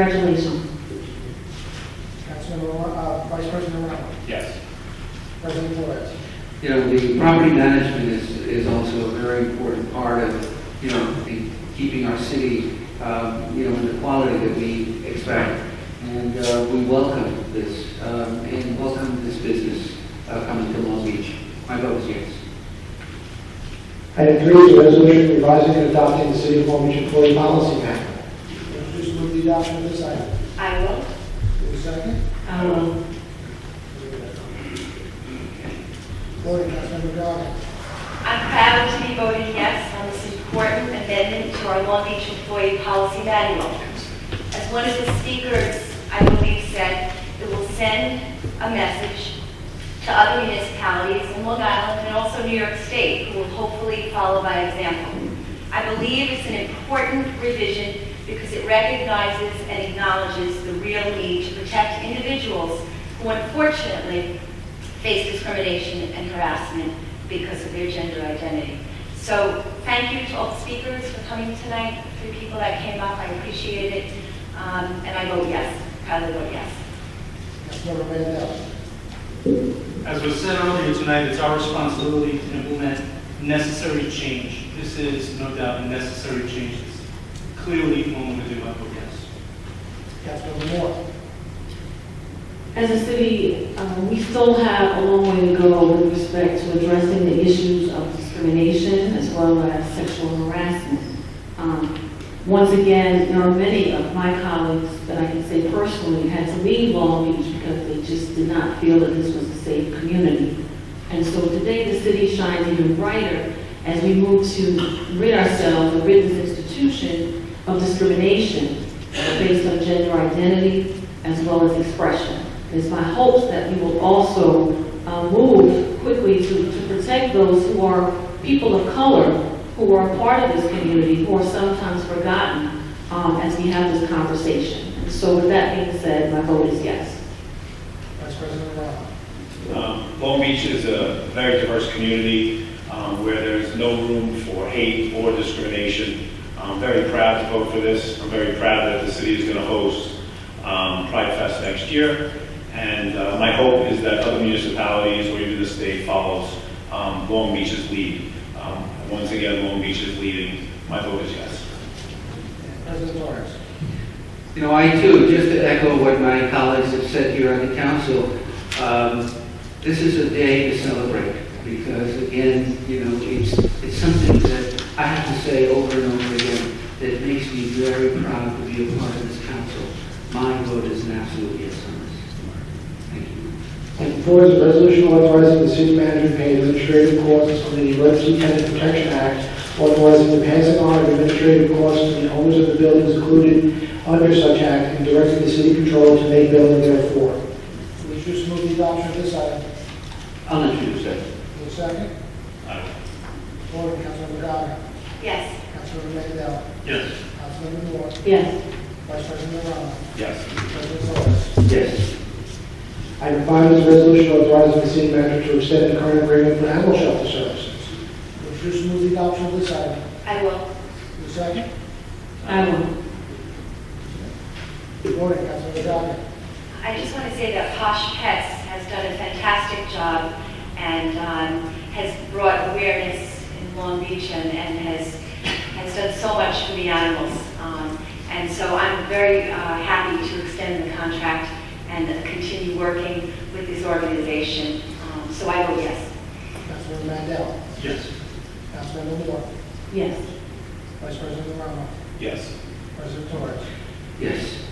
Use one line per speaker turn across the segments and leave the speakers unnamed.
Congratulations.
Councilmember, Ro- uh, Vice President Romano,
Yes.
President Flores.
You know, the property management is, is also a very important part of, you know, the, keeping our city, um, you know, in the quality that we expect. And, uh, we welcome this, um, and welcome this business, uh, coming to Long Beach. My vote is yes.
Item three is a resolution revising and adopting the City of Long Beach Employee Policy Manual.
Please move the adoption of this item.
I will.
Give a second.
I will.
Voting, Councilmember Dodd.
I'm proud to be voting yes on this important amendment to our Long Beach Employee Policy Manual. As one of the speakers, I believe, said, it will send a message to other municipalities in Long Island and also New York State, who will hopefully follow by example. I believe it's an important revision because it recognizes and acknowledges the real need to protect individuals who unfortunately face discrimination and harassment because of their gender identity. So thank you to all the speakers for coming tonight, for the people that came up, I appreciate it. Um, And I vote yes, proudly vote yes.
Councilmember Mandel.
As was said earlier tonight, it's our responsibility to implement necessary change. This is no doubt a necessary change. It's Clearly, one would do, I vote yes.
Councilmember Moore.
As a city, uh, we still have a long way to go with respect to addressing the issues of discrimination as well as sexual harassment. Um, Once again, there are many of my colleagues that I can say personally had to leave Long Beach because they just did not feel that this was a safe community. And so today, the city shines even brighter as we move to rid ourselves, or rid this institution of discrimination based on gender identity as well as expression. It's my hopes that we will also uh, move quickly to, to protect those who are people of color, who are a part of this community, who are sometimes forgotten um, as we have this conversation. So with that being said, my vote is yes.
Vice President Romano.
Um, Long Beach is a very diverse community um, where there's no room for hate or discrimination. I'm very proud to vote for this. I'm very proud that the city is going to host um, Pride Fest next year. And uh, my hope is that other municipalities or even the state follows um, Long Beach's lead. Um, Once again, Long Beach is leading. My vote is yes.
President Torres.
You know, I too, just to echo what my colleagues have said here on the council, um, this is a day to celebrate because again, you know, it's, it's something that I have to say over and over again that makes me very proud to be a part of this council. My vote is an absolute yes on this. Thank you.
Item four is a resolution authorizing the city manager to pay administrative costs under the Emergency Tenant Protection Act, authorizing the passing on of administrative costs to the owners of the buildings included under such act, and directing the city controller to make building therefore.
Please just move the adoption of this item.
I'll introduce that.
Give a second.
I will.
Voting, Councilmember Dodd.
Yes,
Councilmember Mandel.
Yes.
Councilmember Moore.
Yes,
Vice President Romano.
Yes.
President Flores.
Yes.
Item five is a resolution authorizing the city manager to extend the current agreement for animal shelter services.
Please just move the adoption of this item.
I will.
Give a second.
I will.
Voting, Councilmember Dodd.
I just want to say that Posh Pets has done a fantastic job and um, has brought awareness in Long Beach and and has, has done so much for the animals. Um, And so I'm very uh, happy to extend the contract and continue working with this organization. Um, So I vote yes.
Councilmember Mandel.
Yes.
Councilmember Moore.
yes,
Vice President Romano.
Yes.
President Torres.
Yes.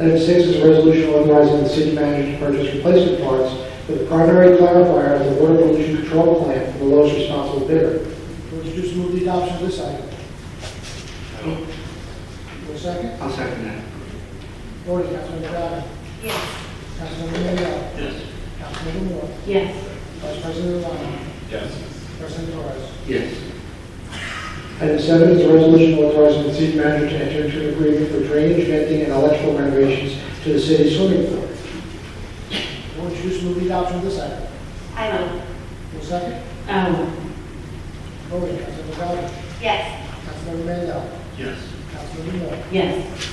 Item six is a resolution authorizing the city manager to purchase replacement parts for the primary clarifier of the water pollution control plan for the lowest responsible bidder.
Would you just move the adoption of this item?
I will.
Give a second.
I'll second that.
Voting, Councilmember Dodd.
Yes.
Councilmember Mandel.
Yes.
Councilmember Moore.
yes,
Vice President Romano.
Yes.
President Torres.
Yes.
Item seven is a resolution authorizing the city manager to enter into an agreement for drainage, venting, and electrical renovations to the city swimming pool.
Would you just move the adoption of this item?
I will.
Give a second.
I will.
Voting, Councilmember Dodd.
Yes.
Councilmember Mandel.
Yes.
Councilmember Moore.
yes,